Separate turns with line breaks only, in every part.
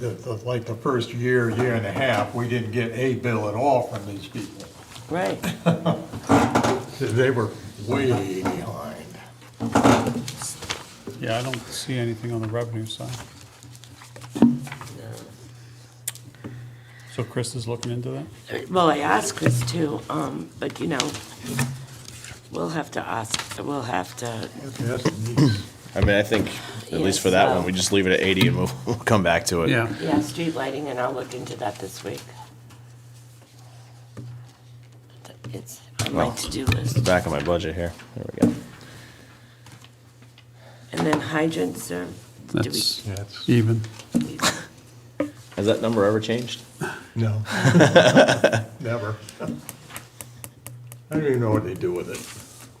the- the- like the first year, year and a half, we didn't get a bill at all from these people.
Right.
They were way behind.
Yeah, I don't see anything on the revenue side. So Chris is looking into that?
Well, I asked Chris too, um, but you know, we'll have to ask, we'll have to,
That's neat.
I mean, I think, at least for that one, we just leave it at 80 and we'll, we'll come back to it.
yeah, street lighting, and I'll look into that this week. It's on my
Well,
to-do
The
list.
back of my budget here. There we go.
And then hydrants, or do we?
That's
That's,
even.
Has that number ever changed?
no. Never. I don't even know what they do with it.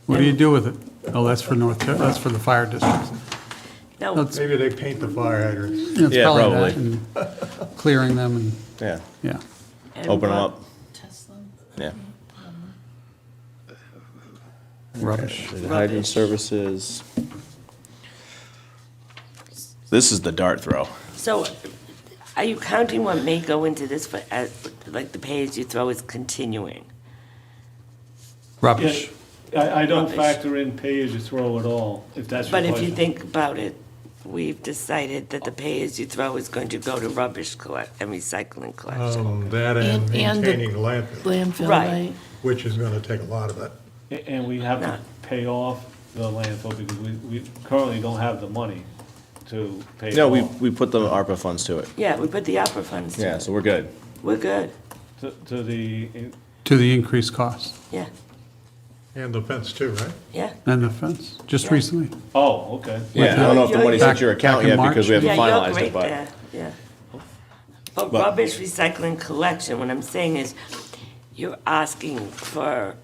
What do you do with it? Oh, that's for North, Ter- that's for the fire districts.
No,
That's-
Maybe they paint the fire hydrants.
Yeah, it's
Yeah,
that
probably.
and Clearing them and,
Yeah.
yeah.
and
Open them
what-
up. Yeah.
Rubbish.
The Hydrant services. This is the dart throw.
So are you counting what may go into this, for as, like the page you throw is continuing?
Rubbish.
I, I don't
Rubbish.
factor in pay as you throw at all, if that's your
But
question.
if you think about it, we've decided that the pay-as-you-throw is going to go to rubbish collect and recycling
Oh.
collection.
Um, that and
And- and the-
maintaining the landfill,
Landfill,
Right.
right?
which is gonna take a lot of it.
A- And we have
No.
to pay off the landfill, because we, we currently don't have the money to pay it
No, we,
off.
we put the ARPA funds to it.
Yeah, we put the opera funds to
Yeah,
it.
so we're good.
We're good,
To, to the,
To the increased cost
yeah,
And the fence too, right?
yeah.
and the fence, just
Yeah.
recently.
oh, okay.
Yeah, I don't know if the
You're-
money's
Back-
hit your account
back in
yet because we
March?
haven't
Yeah, you're
finalized
great
it,
there,
but
yeah. But
But-
rubbish recycling collection, what I'm saying is, you're asking for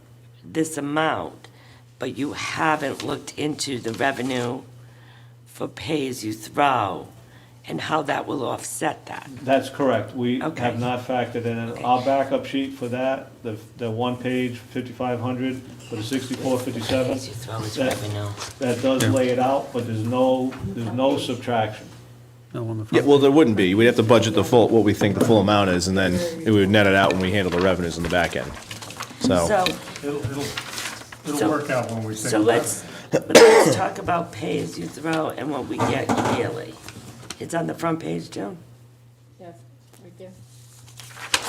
this amount, but you haven't looked into the revenue for pay-as-you-throw and how that will offset that.
That's correct, we
Okay.
have not factored in,
Okay.
our backup sheet for that, the, the one page, fifty-five hundred, for the sixty-four, fifty-seven.
Pay-as-you-throw is
that-
revenue.
That does lay it out, but there's no, there's no subtraction.
No, on the front.
yeah, well, there wouldn't be. We'd have to budget the full, what we think the full amount is, and then we would net it out when we handle the revenues in the back end. Oh.
So,
It'll, it'll,
So-
it'll work out when we think
so
about it.
let's, let's talk about pay as you throw and what we get yearly. It's on the front page, Joan?
Yes, right there.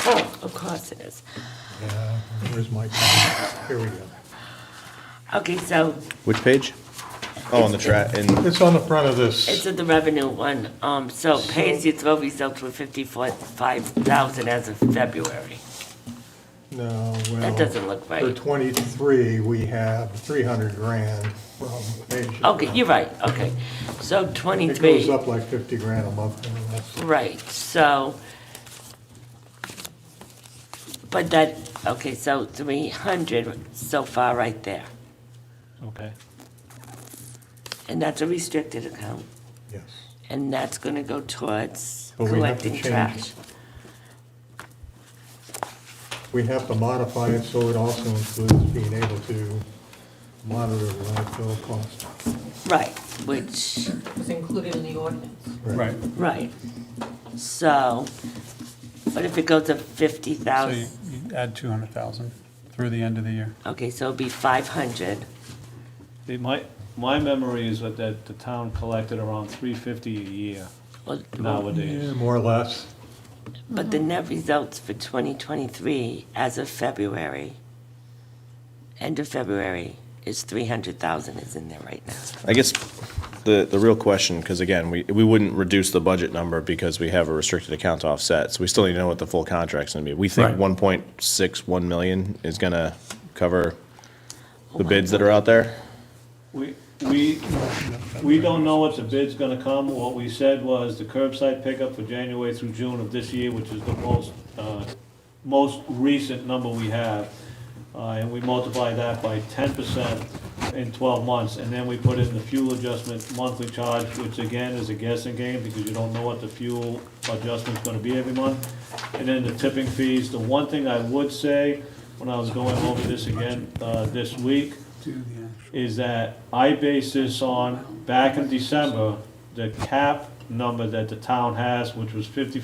Oh, of course it is.
Yeah, Where's my, here we go.
Okay, so
Which page? Oh, on the track, and
It's on the front of this.
it's in the revenue one, um, so pay as you throw results were fifty-four, five thousand as of February.
No, well.
That doesn't look
For
right.
twenty-three, we have three hundred grand from Asia.
Okay, you're right, okay. So
It goes
twenty-three,
up like fifty grand a month, and that's,
right, so. But that, okay, so three hundred so far right there.
Okay.
And that's a restricted account,
yes.
and that's gonna go towards
But we have to
collecting
change
trash.
We have to modify it so it also includes being able to monitor the landfill cost.
Right, which,
Was included in the ordinance.
Right.
right. So, but if it goes to fifty
So you
thousand,
you add 200,000 through the end of the year.
okay, so it'll be five hundred.
It might, my memory is that, that the town collected around three fifty a year
Yeah,
Oh,
nowadays.
more or less.
But the net results for twenty twenty-three as of February, end of February, is three hundred thousand is in there right now.
I guess the, the real question, because again, we, we wouldn't reduce the budget number because we have a restricted account to offset, so we still need to know what the full contract's gonna be. We
Right.
think one point six one million is gonna cover the bids that are out there.
We, we, we don't know what the bid's gonna come, what we said was the curbside pickup for January through June of this year, which is the most, uh, most recent number we have. Uh, and we multiply that by ten percent in twelve months, and then we put in the fuel adjustment monthly charge, which again is a guessing game, because you don't know what the fuel adjustment's gonna be every month. And then the tipping fees, the one thing I would say, when I was going over this again, uh, this week, is that I base this on, back in December, the cap number that the town has, which was fifty